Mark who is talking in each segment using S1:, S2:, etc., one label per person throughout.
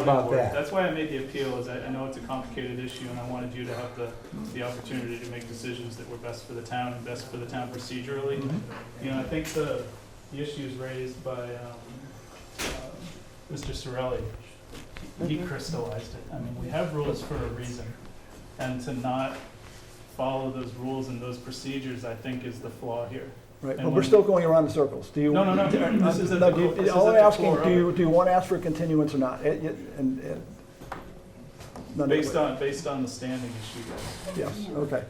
S1: about
S2: board.
S1: that?
S2: That's why I made the appeal, is I, I know it's a complicated issue, and I wanted you to have the, the opportunity to make decisions that were best for the town and best for the town procedurally.
S1: Mm-hmm.
S2: You know, I think the, the issues raised by, um, uh, Mr. Sorelli, he
S1: Mm-hmm.
S2: crystallized it. I mean, we have rules for a reason, and to not follow those rules and those procedures, I think, is the flaw here.
S3: Right,
S2: And
S3: but we're
S2: when-
S3: still going around in circles. Do you?
S2: No, no, no, this is at
S3: No,
S2: the
S3: do you-
S2: core- this is
S3: All
S2: at
S3: I'm
S2: the
S3: asking,
S2: core of
S3: do you,
S2: it.
S3: do you want to ask for continuance or not? It- it- and- and- none of it.
S2: Based on, based on the standing issue, guys.
S3: Yes, okay.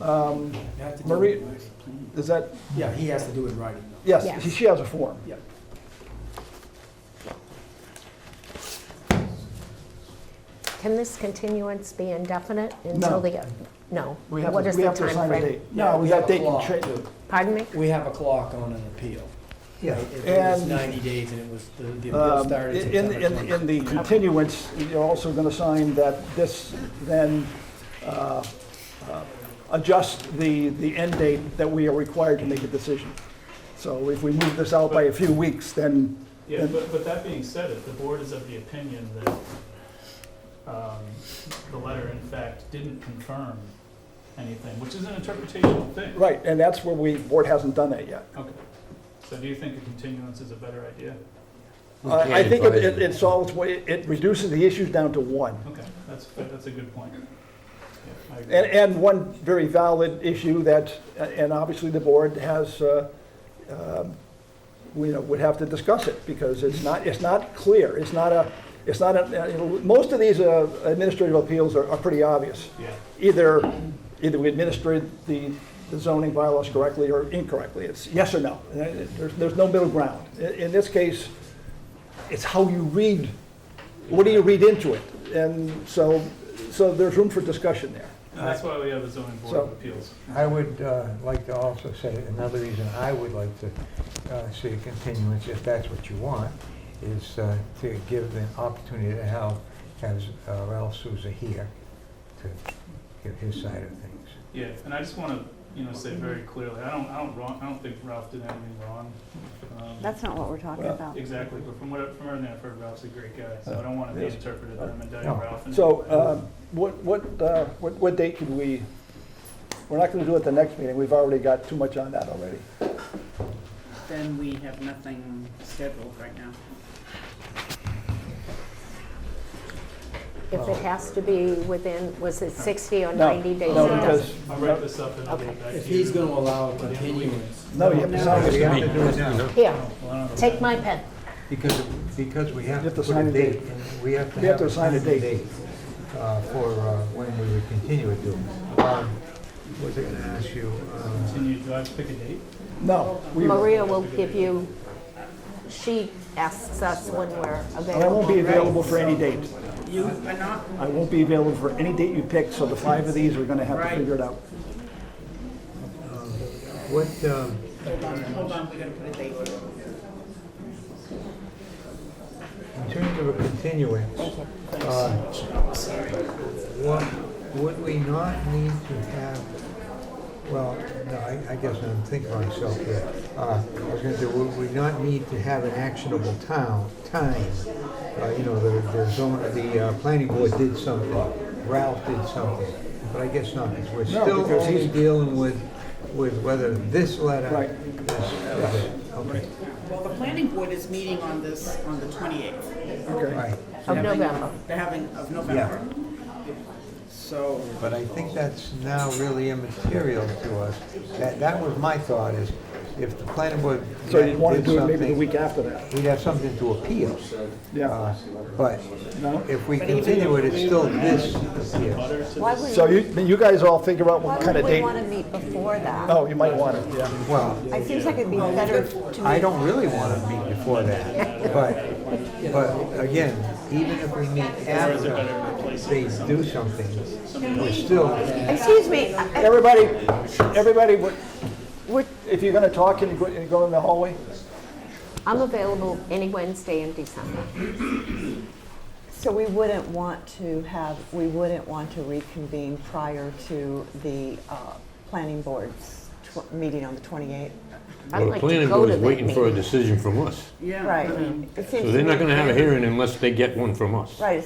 S3: Um,
S1: You have to do it
S3: Marie-
S1: in writing.
S3: Is that,
S1: Yeah, he has to do it in writing. though.
S3: yes,
S4: Yes.
S3: she- she has a form.
S1: Yeah.
S4: Can this continuance be indefinite until the, no?
S3: We have
S4: What
S3: to,
S4: is
S3: we
S4: the
S3: have to assign a
S4: timeframe?
S3: date.
S1: Yeah,
S3: No,
S1: we
S3: that
S1: have a
S3: date can
S1: clock.
S3: change.
S4: Pardon me?
S1: We have a clock on an appeal.
S3: Yeah,
S1: If it was
S3: and,
S1: ninety days and it was, the the appeal
S3: um,
S1: started
S3: in,
S1: September
S3: in,
S1: 20th.
S3: in the continuance, you're also going to sign that this then uh, uh, adjusts the, the end date that we are required to make a decision. So if we move this out by a few weeks, then
S2: Yeah, but, but that being said, if the board is of the opinion that, um, the letter in fact didn't confirm anything, which is an interpretational thing.
S3: Right, and that's where we, board hasn't done that yet.
S2: Okay. So do you think a continuance is a better idea?
S3: I I think it- it it solves, what- it it reduces the issues down to one.
S2: Okay, that's, that's a good point. Yeah, I agree.
S3: And, and one very valid issue that, uh, and obviously the board has, uh, um, we, you know, would have to discuss it, because it's not, it's not clear, it's not a, it's not a, you know, most of these uh, administrative appeals are are pretty obvious.
S2: Yeah,
S3: Either, either we administered the the zoning bylaws correctly or incorrectly, it's yes or no, And it- there's, there's no middle ground. In in this case, it's how you read, what do you read into it? And so, so there's room for discussion there.
S2: and that's why we have the zoning board of appeals.
S5: I would uh, like to also say, another reason I would like to uh, see a continuance, if that's what you want, is uh, to give the opportunity to have, have uh, Ralph Souza here to give his side of things.
S2: Yeah, and I just wanna, you know, say very clearly, I don't, I don't wrong, I don't think Ralph did anything wrong. Um,
S6: That's not what we're talking
S3: Well,
S6: about.
S2: Exactly, but from what, from everything I've heard, Ralph's a great guy, so I don't wanna be
S3: Yes.
S2: interpreted that I'm indicting
S5: No.
S2: Ralph. in
S3: So
S2: any way.
S3: um, what, what, uh, what what date can we, we're not going to do it the next meeting, we've already got too much on that already.
S7: Then we have nothing scheduled right now.
S4: If it has to be within, was it 60 or
S3: No,
S4: 90 days?
S3: No,
S4: it
S3: because,
S4: doesn't-
S2: I'll write this up and I'll get
S4: Okay.
S2: back to you.
S1: If he's gonna allow a continuance.
S3: no, you have to sign
S5: We
S3: it.
S5: have to do it now,
S4: Here,
S2: Well, I don't know.
S4: take my pen.
S5: because, because we
S3: You have
S5: have to
S3: to
S5: put
S3: sign
S5: a
S3: a
S5: date,
S3: date.
S5: and we have to
S3: We have
S5: have
S3: to
S5: a
S3: sign a
S5: sign
S3: date.
S5: date uh, for uh, when we would continue it to. Um, Was I gonna ask you? uh,
S2: Can you, do I have to pick a date?
S3: No. we-
S4: Maria will give you, she asks us when we're
S3: And I
S4: available.
S3: won't be
S4: right?
S3: available for any date.
S7: You are not,
S3: I won't be available for any date you pick, so the five of these are going to have to
S7: Right.
S3: figure it out.
S5: What, um,
S7: hold on, hold on, we gotta put a date here.
S5: In terms of a continuance, uh, what, would we not need to have, well, no, I, I guess I'm thinking of myself here. Uh, I was gonna say, would we not need to have an actionable town, time? Uh, you know, the, the zone, the, uh, planning board did something, Ralph did something, but I guess not, because we're
S3: No,
S5: still
S3: because
S5: only
S3: he's-
S5: dealing with, with whether this letter
S3: Right.
S5: is, is it. okay,
S7: Well, the planning board is meeting on this, on the twenty-eighth.
S3: Okay.
S5: right.
S4: Of November.
S7: They're having, of November. So,
S5: But I think that's now really immaterial to us. That, that was my thought, is if the planning board
S3: So you want to
S5: did
S3: do it maybe the
S5: something,
S3: week after that?
S5: We'd have something to appeal.
S3: Yeah.
S5: Uh, But
S3: No?
S5: if we continue it, it's still this appeal.
S4: Why would,
S3: So you, you guys all figure out
S6: Why
S3: what kind
S6: would
S3: of
S6: we
S3: date.
S6: want to meet before that?
S3: Oh, you might want it, yeah.
S5: Well,
S6: It seems like it'd be better to
S5: I don't really want to meet before that, but, but again, even if we meet after they do something, we're still
S6: Excuse me, I- I-
S3: Everybody, everybody, what-
S4: we're-
S3: if you're going to talk, can you go- go in the hallway?
S4: I'm available any Wednesday in December.
S6: so we wouldn't want to have, we wouldn't want to reconvene prior to the uh, planning board's tw- meeting on the 28th?
S4: I'd
S8: Well, the
S4: like
S8: planning
S4: to go
S8: board
S4: to
S8: is
S4: that
S8: waiting for a
S4: meeting.
S8: decision from us.
S7: Yeah. I
S6: Right.
S7: mean,
S6: It seems
S8: So
S6: to
S8: they're
S6: me-
S8: not gonna have a hearing unless they get one from us.
S6: Right, it